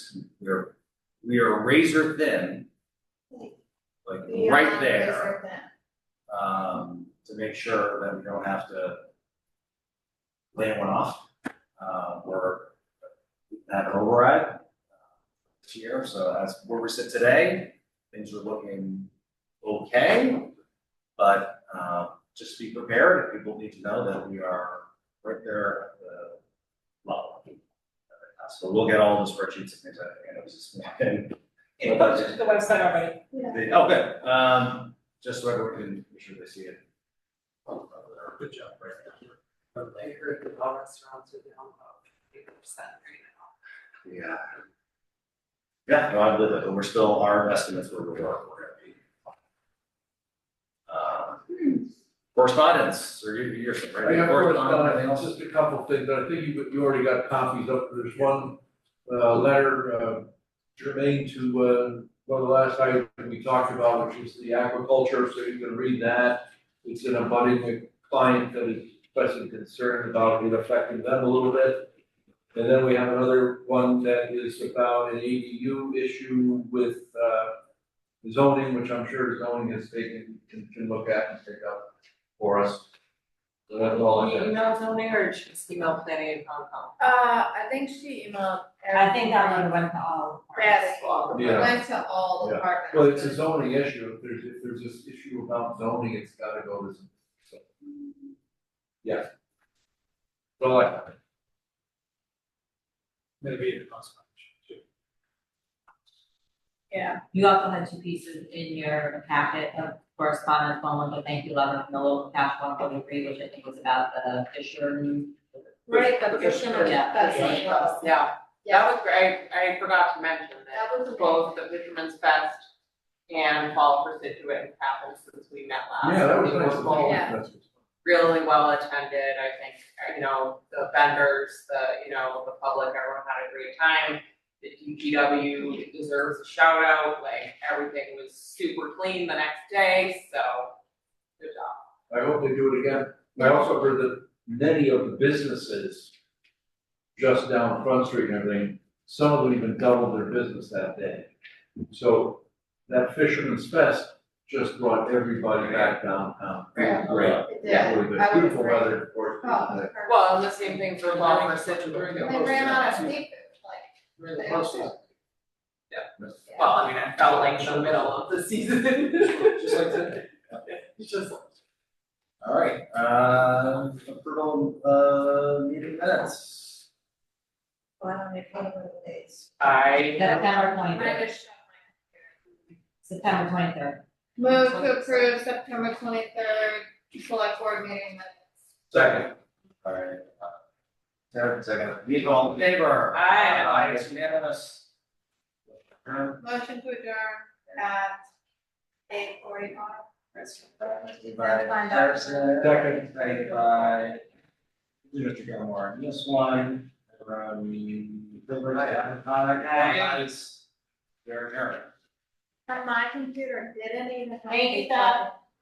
are, we are razor thin. Like We are right on there, razor thin. um, to make sure that we don't have to. Lay one off, uh, or have an override. uh, This year, so as where we sit today, things are looking okay. But, uh, just be prepared, and people need to know that we are right there at the level. So we'll get all the spreadsheets and things like that, and it was just, It posted to the website already. They- oh, good, um, just so everyone can make sure they see it. Oh, Good job, right there. I heard the bar restaurants are down about eighty percent right Yeah. Yeah, no, I believe it, but we're still, our estimates were, we're, we're gonna be. Um, Correspondence, or you, you're, I right? have Anything correspondence, else? just a couple things, but I think you, you already got copies up, there's one, uh, letter, uh, germane to, uh, one of the last items we talked about, which is the aquaculture, so you can read that. It's in a budding with client that is expressing concern about it affecting them a little bit. And then we have another one that is about an ADU issue with, uh, zoning, which I'm sure zoning is taken, can, can look at and pick up for us. So that's all I now. got. Email zoning or just email planning and Concom? Uh, I think she emailed. I think that one went to all parties. Patty. Well, Yeah. Went to all Yeah. departments. Well, it's a zoning issue, if there's, if there's this issue about zoning, it's gotta go to, some- so. Yeah. So I, maybe the consequence. too. Yeah, You also had two pieces in your packet of correspondence, one was the thank you letter from the local cash fund for the free, which I think was about the Fisher. right, the fisherman, Yeah. that's it, well, Yeah, yeah, that was great. I forgot to mention that that was amazing. both the Fisherman's Fest and Fall for Situate happened since we met last. yeah, that was They nice. were both Yeah. Really well attended, I think, you know, the vendors, the, you know, the public, everyone had a great time. The DGW deserves a shout out, like, everything was super clean the next day, so, good job. I hope they do it again. I also heard that many of the businesses just down Front Street and everything, some of them even doubled their business that day. So that Fisherman's Fest just brought everybody back downtown. Yeah. Great. it did. Yeah, really I good. was Beautiful great. weather, of course. Oh, it was perfect. Well, and the same thing for law for Situate. They ran out of seafood, like, Really they close. actually- Well, I mean, it felt like the middle of the season. Just like today. It's Just, All right, uh, approval, uh, meeting minutes. Well, I don't make one of these. I. September I'm twenty gonna third, just shut September twenty third, my computer. Move to approve September twenty-third, select board meeting minutes. Second. All right. uh, Sarah, second. We all in favor? Aye. Aye, it's unanimous. Adjourn. Motion to adjourn at eight forty-five. Moved By Harrison. Second. Seconded by Mr. Gilmore. And This one, from Gilbert, aye, aye, ayes. They're adjourned. And my computer didn't even. Thank you, Seth.